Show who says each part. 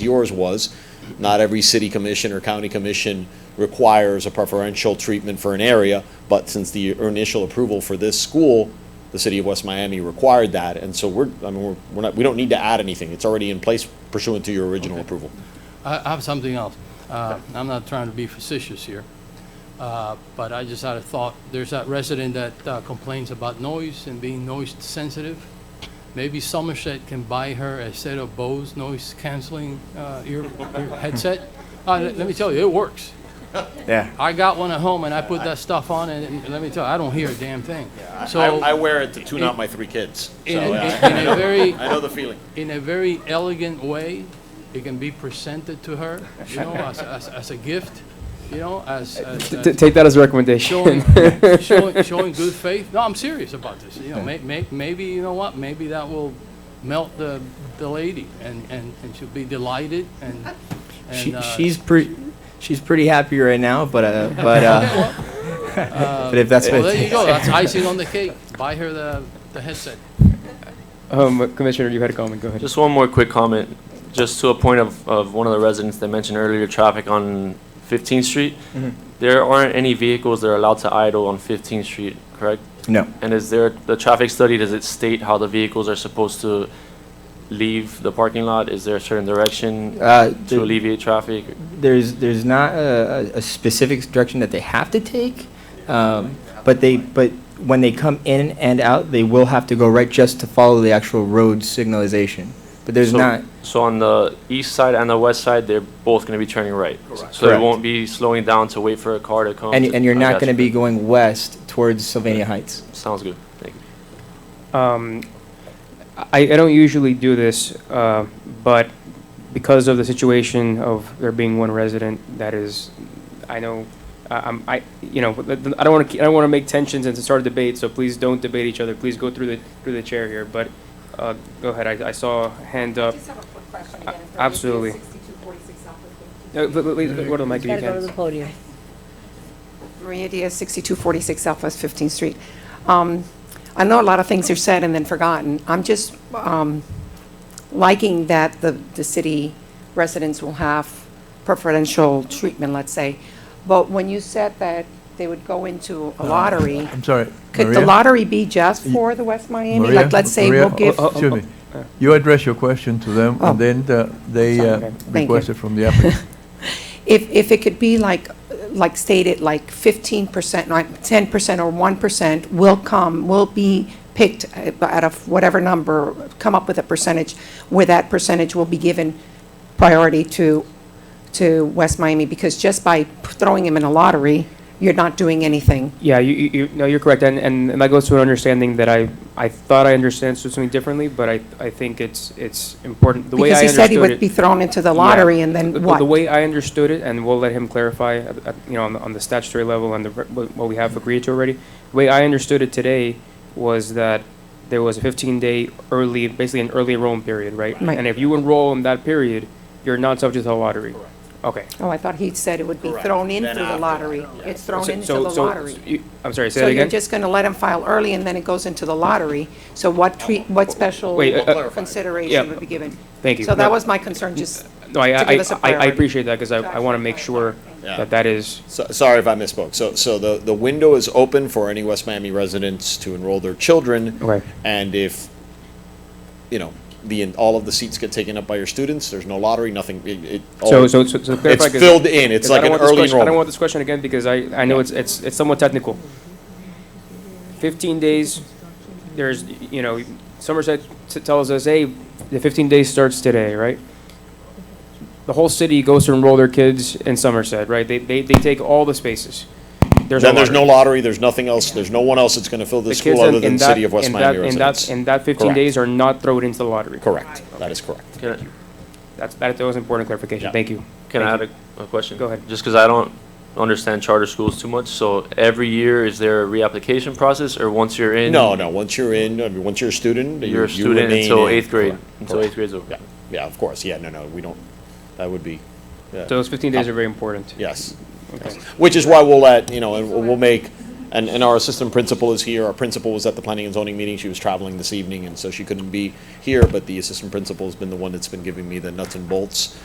Speaker 1: yours was, not every city commission or county commission requires a preferential treatment for an area, but since the initial approval for this school, the city of West Miami required that, and so we're, I mean, we're, we're not, we don't need to add anything, it's already in place pursuant to your original approval.
Speaker 2: I I have something else. Uh, I'm not trying to be facetious here, uh, but I just had a thought. There's that resident that uh, complains about noise and being noise sensitive. Maybe Somerset can buy her a set of Bose noise canceling uh, ear ear headset. Uh, Let let me tell you, it works.
Speaker 3: Yeah.
Speaker 2: I got one at home and I put that stuff on and and let me tell you, I don't hear a damn thing. So
Speaker 1: I, I wear it to tune out
Speaker 2: in-
Speaker 1: my three kids, so,
Speaker 2: in a-
Speaker 1: yeah,
Speaker 2: in a very,
Speaker 1: I know the feeling.
Speaker 2: in a very elegant way. It can be presented to her, you know, as, as, as a gift, you know, as, as,
Speaker 3: T- t-
Speaker 2: as
Speaker 3: Take that as a recommendation.
Speaker 2: showing, showing, showing good faith. No, I'm serious about this. You know, may, may, maybe, you know what, maybe that will melt the, the lady and, and, and she'll be delighted and,
Speaker 3: She-
Speaker 2: and, uh,
Speaker 3: She's pretty, she's pretty happy right now, but, uh, but, uh, but if that's
Speaker 2: Uh, well, there you go.
Speaker 3: what,
Speaker 2: That's icing on the cake. Buy her the, the headset.
Speaker 3: um, Commissioner, you had a comment, go ahead.
Speaker 4: Just one more quick comment, just to a point of, of one of the residents that mentioned earlier, traffic on 15th Street.
Speaker 3: Mm-hmm.
Speaker 4: There aren't any vehicles that are allowed to idle on 15th Street, correct?
Speaker 3: No.
Speaker 4: And is there, the traffic study, does it state how the vehicles are supposed to leave the parking lot? Is there a certain direction
Speaker 3: Uh,
Speaker 4: to
Speaker 3: the-
Speaker 4: alleviate traffic?
Speaker 3: There's, there's not a, a- a specific direction that they have to take, um, but they, but when they come in and out, they will have to go right just to follow the actual road signalization. But there's
Speaker 4: So-
Speaker 3: not,
Speaker 4: So on the east side and the west side, they're both going to be turning right? Correct. So they
Speaker 3: Correct.
Speaker 4: won't be slowing down to wait for a car to come?
Speaker 3: and,
Speaker 4: to-
Speaker 3: and you're
Speaker 4: I
Speaker 3: not
Speaker 4: got
Speaker 3: gonna
Speaker 4: you.
Speaker 3: be going west towards Sylvania Heights.
Speaker 4: Sounds good, thank you.
Speaker 5: Um, I, I don't usually do this, uh, but because of the situation of there being one resident that is, I know, I- I'm, I, you know, but the- I don't want to, I don't want to make tensions and to start a debate, so please don't debate each other. Please go through the, through the chair here, but, uh, go ahead. I, I saw a hand
Speaker 6: I
Speaker 5: up.
Speaker 6: just have a quick question
Speaker 5: A-
Speaker 6: again. if
Speaker 5: Uh, absolutely.
Speaker 6: I could get 6246 off of
Speaker 5: No, but- but- but go to the mic if you
Speaker 7: Gotta go to
Speaker 5: can.
Speaker 7: the podium.
Speaker 6: the- Maria Diaz, 6246 Southwest 15th Street. Um, I know a lot of things are said and then forgotten. I'm just um, liking that the, the city residents will have preferential treatment, let's say. But when you said that they would go into a lottery,
Speaker 8: I'm sorry,
Speaker 6: could the
Speaker 8: Uh, Maria?
Speaker 6: lottery be just for the West Miami?
Speaker 8: Maria,
Speaker 6: Like, let's say
Speaker 8: Maria,
Speaker 6: we'll give,
Speaker 5: oh,
Speaker 8: Excuse me. You address your question to them,
Speaker 6: Oh.
Speaker 8: and then the- they
Speaker 5: Sorry,
Speaker 8: uh,
Speaker 5: okay.
Speaker 6: you.
Speaker 8: request it from the applicant.
Speaker 6: if, if it could be like, like stated, like 15%, like 10% or 1% will come, will be picked uh, out of whatever number, come up with a percentage, where that percentage will be given priority to, to West Miami, because just by throwing them in a lottery, you're not doing anything.
Speaker 5: Yeah, you, you, you- no, you're correct, and, and and that goes to an understanding that I, I thought I understood something differently, but I, I think it's, it's important. The way
Speaker 6: Because
Speaker 5: I
Speaker 6: he said he
Speaker 5: understood
Speaker 6: would
Speaker 5: it-
Speaker 6: be thrown into the
Speaker 5: Yeah.
Speaker 6: lottery, and
Speaker 5: The-
Speaker 6: then
Speaker 5: the-
Speaker 6: what?
Speaker 5: The way I understood it, and we'll let him clarify, at- at- you know, on the, on the statutory level and the, re- what what we have agreed to already. The way I understood it today was that there was a fifteen-day early, basically an early enrollment period, right?
Speaker 6: Right.
Speaker 5: And if you enroll in that period, you're not subject to the lottery. Okay.
Speaker 6: Oh, I thought he said it would be thrown into the lottery. It's thrown
Speaker 5: So-
Speaker 6: into the
Speaker 5: so- so-
Speaker 6: lottery.
Speaker 5: you- I'm sorry, say
Speaker 6: So
Speaker 5: that
Speaker 6: you're
Speaker 5: again?
Speaker 6: just going to let them file early, and then it goes into the lottery? So what treat, what special
Speaker 5: Wait, uh, uh, yeah.
Speaker 6: consideration would be given?
Speaker 5: Thank you.
Speaker 6: So
Speaker 5: No.
Speaker 6: that was my concern, just,
Speaker 5: No, I,
Speaker 6: to
Speaker 5: I,
Speaker 6: give us a
Speaker 5: I- I
Speaker 6: priority.
Speaker 5: appreciate that, because I, I want to make sure
Speaker 1: Yeah.
Speaker 5: that that is,
Speaker 1: So, sorry if I misspoke. So, so the, the window is open for any West Miami residents to enroll their children.
Speaker 5: Okay.
Speaker 1: And if, you know, the, all of the seats get taken up by your students, there's no lottery, nothing, it, it.
Speaker 5: so,
Speaker 1: all-
Speaker 5: so, so so clarify.
Speaker 1: It's
Speaker 5: 'cause-
Speaker 1: filled in, it's
Speaker 5: 'cause I
Speaker 1: like an
Speaker 5: don't want this
Speaker 1: early
Speaker 5: question- I don't want
Speaker 1: enrollment.
Speaker 5: this question again, because I, I know it's, it's, it's somewhat technical. Fifteen days, there's, you know, Somerset t- tells us, hey, the fifteen days starts today, right? The whole city goes to enroll their kids in Somerset, right? They, they, they take all the spaces. There's
Speaker 1: Then there's no
Speaker 5: lottery.
Speaker 1: lottery, there's nothing else, there's no one else that's gonna fill
Speaker 5: The
Speaker 1: this
Speaker 5: kids
Speaker 1: school
Speaker 5: in-
Speaker 1: other
Speaker 5: in
Speaker 1: than
Speaker 5: that-
Speaker 1: City of West
Speaker 5: in
Speaker 1: Miami
Speaker 5: that- in that-
Speaker 1: residents.
Speaker 5: In that fifteen
Speaker 1: Correct.
Speaker 5: days are not thrown into the lottery.
Speaker 1: Correct, that is correct.
Speaker 4: Can I-
Speaker 5: That's, that was important clarification.
Speaker 1: Yeah.
Speaker 5: Thank you.
Speaker 4: Can I
Speaker 5: Thank
Speaker 4: add a, a question?
Speaker 5: Go ahead.
Speaker 4: Just because I don't understand charter schools too much, so every year, is there a reapplication process, or once you're in?
Speaker 1: No, no, once you're in, I mean, once you're a student, you you
Speaker 4: You're a student
Speaker 1: remain
Speaker 4: until
Speaker 1: in.
Speaker 4: eighth grade,
Speaker 1: Correct,
Speaker 4: until
Speaker 1: correct.
Speaker 4: eighth grade's over.
Speaker 1: Yeah, yeah, of course, yeah, no, no, we don't, that would be, yeah.
Speaker 5: Those 15 days are very important.
Speaker 1: Yes.
Speaker 5: Okay.
Speaker 1: Which is why we'll let, you know, and we'll make And, and our assistant principal is here. Our principal was at the planning and zoning meeting. She was traveling this evening, and so she couldn't be here, but the assistant principal's been the one that's been giving me the nuts and bolts